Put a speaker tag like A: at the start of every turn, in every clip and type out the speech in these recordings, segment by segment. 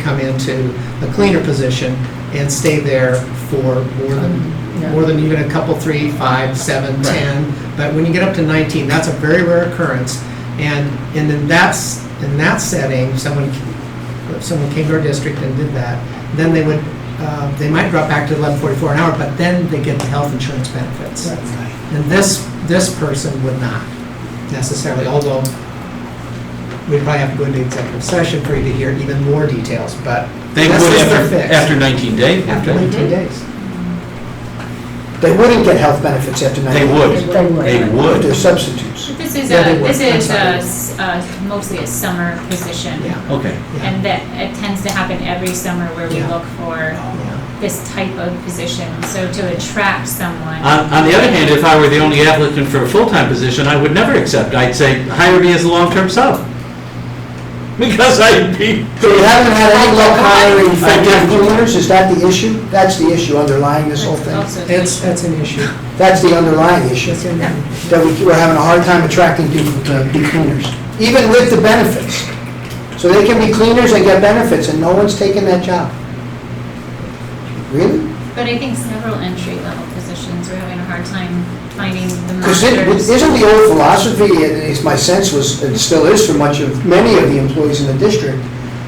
A: come into a cleaner position and stay there for more than,
B: Um, Yeah.
A: more than even a couple, three, five, seven,
B: Right.
A: 10. But when you get up to 19, that's a very rare occurrence. And, and then that's, in that setting, someone, if someone came to our district and did that, then they would, uh, they might drop back to 1144 an hour, but then they get the health insurance benefits. And this, this person would not necessarily, although we'd probably have to go into executive session for you to hear even more details, but.
C: They
A: this
C: would
A: is their
C: after,
A: fix.
C: after 19 days. wouldn't
A: After
C: they?
A: 19 days.
D: They wouldn't get health benefits after 90
C: They
D: days.
C: would,
B: They would.
C: they
D: But they're
C: would.
D: substitutes.
E: This is
A: Yeah,
E: a,
A: they work.
E: this is
A: I'm
E: a s- a, mostly a summer position.
A: Yeah.
C: Okay,
A: Yeah.
E: And that, it tends to happen every summer where we
A: Yeah.
E: look for
A: Yeah.
E: this type of position, so to attract someone.
C: on, on the other hand, if I were the only applicant for a full-time position, I would never accept, I'd say, hire me as a long-term sub. Because I'd be,
D: So we haven't had any luck hiring effective cleaners, is that the issue? That's the issue underlying this whole
E: That's
D: thing?
E: also an
A: It's,
E: issue.
A: that's an issue.
D: That's the underlying issue,
A: That's an issue.
D: that we- we're having a hard time attracting people to be cleaners, even with the benefits. So they can be cleaners and get benefits, and no one's taking that job. Really?
E: But I think several entry-level positions, we're having a hard time finding the
D: Because it-
E: masters.
D: isn't the old philosophy, and it's my sense was, and still is for much of, many of the employees in the district,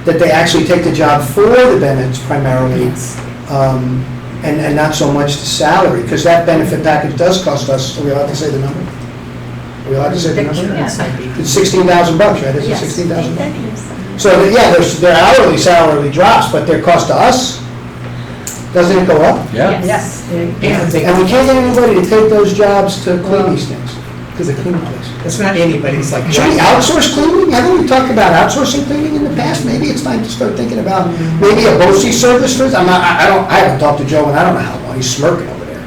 D: that they actually take the job for the benefits primarily,
E: Yes.
D: um, and, and not so much the salary, because that benefit package does cost us, are we allowed to say the number? Are we allowed to say the number? It's sixteen thousand bucks, right? Is it
E: Yes.
D: sixteen thousand bucks? So, yeah, their, their hourly salary drops, but their cost to us, doesn't it go up?
C: yeah.
B: Yes.
A: And they-
D: And we can't get anybody to take those jobs to clean these things, to the cleaning place.
A: It's not anybody's like.
D: Should we outsource cleaning? Haven't we talked about outsourcing cleaning in the past? Maybe it's time to start thinking about maybe a BOSI service for, I'm not, I I don't, I haven't talked to Joe and I don't know how long, he's smirking over there.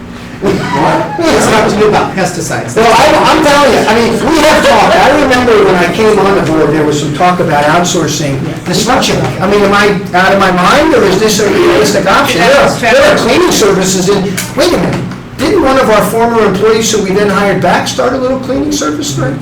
A: It's not to do about pesticides.
D: Well, I, I'm telling you, I mean, we have talked, I remember when I came on the board, there was some talk about outsourcing destruction. I mean, am I out of my mind, or is this a realistic option? There are, there are cleaning services in, wait a minute, didn't one of our former employees who we then hired back start a little cleaning service, right?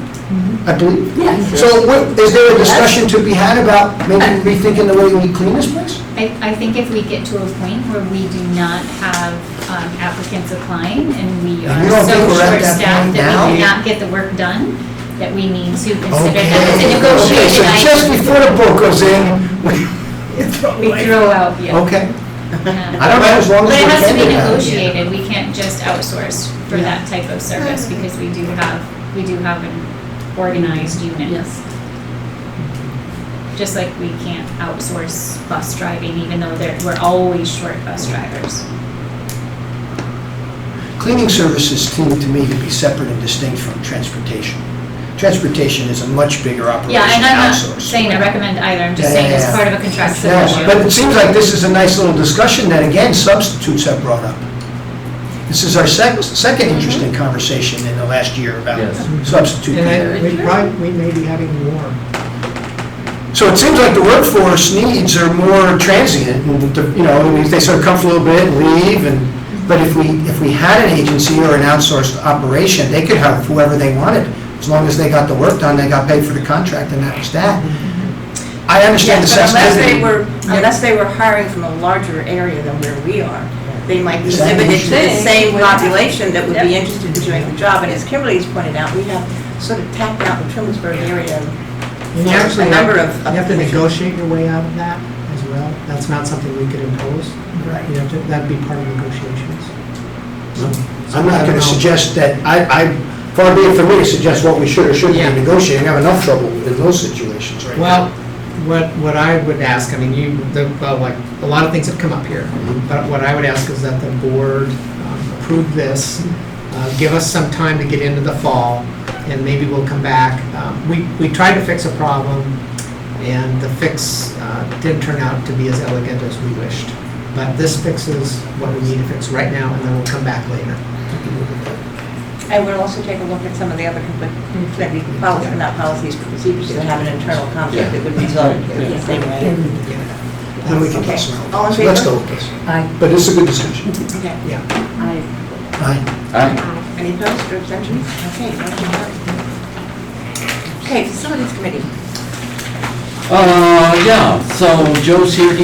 D: I believe.
B: Yes.
D: So what, is there a discussion to be had about maybe rethinking the way we clean this place?
E: I, I think if we get to a point where we do not have um, applicants applying and we
D: And
E: are
D: you don't
E: so
D: think we're at
E: short
D: that
E: staffed
D: point
E: that we
D: now?
E: cannot get the work done, that we need to consider that it's a
D: Okay, okay, so
E: negotiated
D: just
E: item.
D: before the book goes in,
E: We throw out, yeah.
D: okay.
E: Yeah.
D: I don't know, as long as
E: But
D: we
E: it has to
D: can
E: be
D: do that.
E: negotiated, we can't just outsource for
B: Yeah.
E: that type of service, because we do have, we do have an organized unit.
B: Yes.
E: Just like we can't outsource bus driving, even though there, we're always short bus drivers.
D: Cleaning services seem to me to be separate and distinct from transportation. Transportation is a much bigger operation
E: Yeah, and I'm
D: outsourced.
E: not saying I recommend either, I'm just
D: Yeah,
E: saying
D: yeah,
E: it's
D: yeah.
E: part of a contractual
D: Yeah, But
E: issue.
D: it seems like this is a nice little discussion that, again, substitutes have brought up. This is our sec- second interesting conversation in the last year about
C: Yes.
D: substitute
A: And
D: people.
A: I, we probably, we may be having more.
D: So it seems like the workforce needs are more transient, and, the- you know, I mean, they sort of come for a little bit and leave, and, but if we, if we had an agency or an outsourced operation, they could have whoever they wanted, as long as they got the work done, they got paid for the contract, and that was that. I understand the
F: Yes, but unless they
D: sensitivity.
F: were, unless they were hiring from a larger area than where we are, they might be
D: Is that an
F: limited to the
B: issue?
F: same population that would be
B: Yep.
F: interested in doing the job. And as Kimberly's pointed out, we have sort of tapped out the Trimblesburg area.
A: And you actually
F: A
A: have-
F: number of- of
A: You have to
F: positions.
A: negotiate your way out of that as well. That's not something we could impose.
F: Right.
A: You have to, that'd be part of negotiations.
D: I'm not going to suggest that, I, I, far be it from me to suggest what we should or shouldn't
A: Yeah.
D: be negotiating, I have enough trouble in those situations right now.
A: Well, what, what I would ask, I mean, you, the, well, like, a lot of things have come up here, but what I would ask is that the board um, approve this, uh, give us some time to get into the fall, and maybe we'll come back. Um, We, we tried to fix a problem, and the fix uh, didn't turn out to be as elegant as we wished. But this fixes what we need to fix right now, and then we'll come back later.
F: And we'll also take a look at some of the other conflicting policies, not policies, but procedures that have an internal conflict that would result in the same way.
D: Then we can
F: Okay.
D: pass around.
F: All in favor?
D: Let's go with this.
B: I,
D: But it's a good discussion.
F: Okay.
A: Yeah.
B: I,
D: Aye.
C: I-
F: Any opposed or abstentions? Okay, motion carried. Okay, facilities committee.
C: Uh, yeah, so Joe's here, he